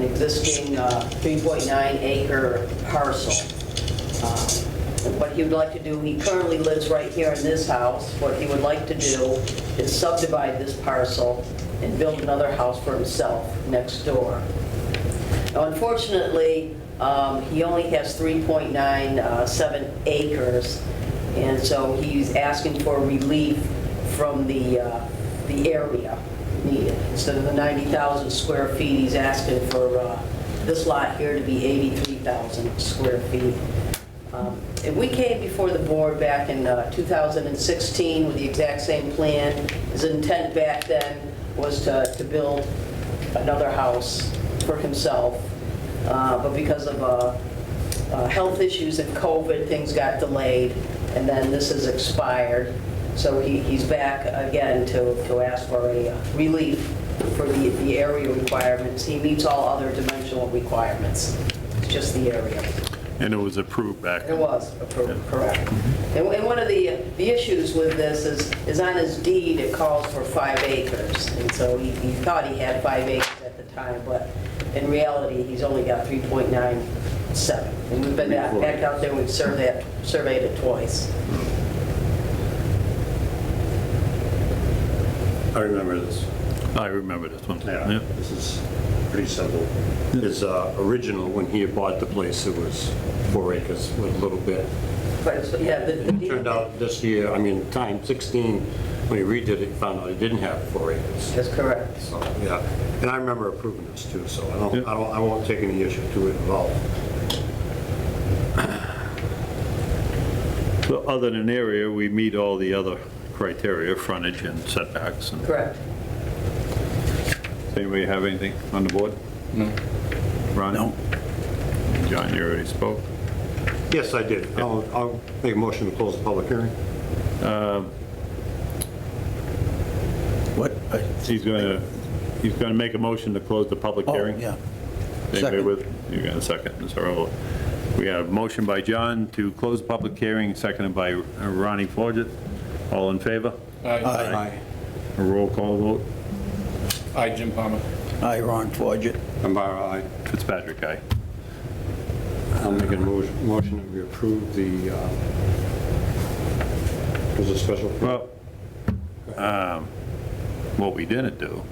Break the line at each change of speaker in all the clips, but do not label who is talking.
existing uh, 3.9 acre parcel. Um, What he would like to do, he currently lives right here in this house. What he would like to do is subdivide this parcel and build another house for himself next door. Now, Unfortunately, um, he only has 3.97 acres, and so he's asking for relief from the, uh, the area needed. Instead of the 90,000 square feet, he's asking for uh, this lot here to be 83,000 square feet. Um, And we came before the board back in uh, 2016 with the exact same plan. His intent back then was to to build another house for himself, Uh, but because of uh, uh, health issues and COVID, things got delayed, and then this has expired. So he- he's back again to to ask for a uh, relief for the the area requirements. He meets all other dimensional requirements, It's just the area.
And it was approved back.
It was approved, correct. And and one of the, the issues with this is, is on his deed, it calls for five acres. And so he, he thought he had five acres at the time, but in reality, he's only got 3.97. And we've been out- back out there, we've surveyed, surveyed it twice.
I remember this.
I remember this one.
Yeah, this is pretty simple. His uh, original, when he had bought the place, it was four acres with a little bit.
But it's, yeah, the the deed.
Turned out this year, I mean, time 16, when he redid it, he found out he didn't have four acres.
That's correct.
So, yeah, and I remember approving this too, so I
Yeah.
don't, I don't, I won't take any issue to it at all.
So other than area, we meet all the other criteria, frontage and setbacks. and-
Correct.
Does Anybody have anything on the board? No. Ron? No. John, you already spoke.
Yes, I did. I'll, I'll make a motion to close the public hearing.
What? I-
He's going to, he's going to make a motion to close the public
Oh,
hearing.
yeah.
Anybody
Second.
with, you're going to second, Ms. Earl. We have a motion by John to close the public hearing, seconded by Ronnie Forget. All in favor?
Aye.
A roll call vote.
Hi, Jim Palmer.
Aye, Ron Forget.
Ambara, aye.
Fitzpatrick, aye.
I'll make a mo- motion that we approve the, uh, was it special?
Well, um, what we didn't do,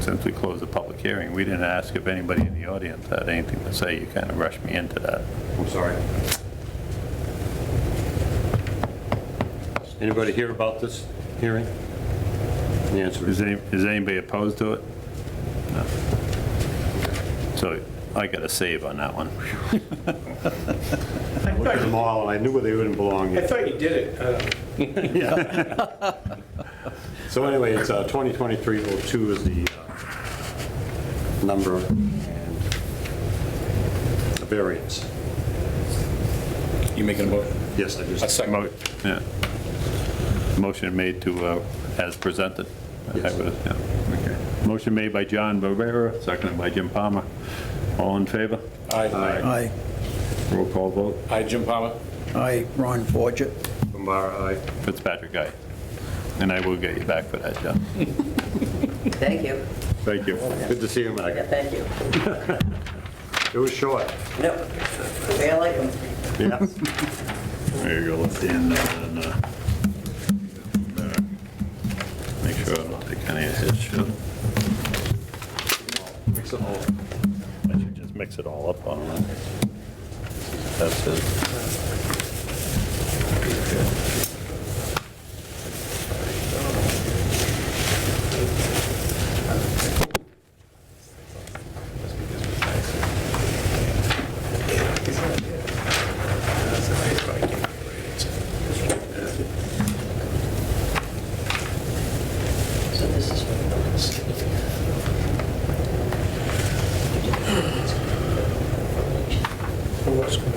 since we closed the public hearing, we didn't ask if anybody in the audience had anything to say. You kind of rushed me into that.
I'm sorry. Anybody hear about this hearing? The answer
Is
is,
any- is anybody opposed to it? No. So I got a save on that one.
I looked at them all, and I knew where they wouldn't belong.
I thought you did it. Uh,
So anyway, it's uh, 2023-02 is the uh, number and the variance.
You making a motion?
Yes, I
A
just,
second.
Mo- yeah. Motion made to, uh, as presented. I
Yes.
would- yeah, okay. Motion made by John Barrera, seconded by Jim Palmer. All in favor?
Aye.
Aye.
Roll call vote.
Hi, Jim Palmer.
Aye, Ron Forget.
Bombara, aye.
Fitzpatrick, aye. And I will get you back for that, John.
Thank you.
Thank you.
Good to see you,
Yeah,
Mike.
thank you.
It was short.
Yep. I like them.
Yeah.
There you go, let's end that and, uh, there. Make sure I don't take any of his shit. Mix it all. I should just mix it all up on it. That's it.
So this is what it is.
Well, that's good.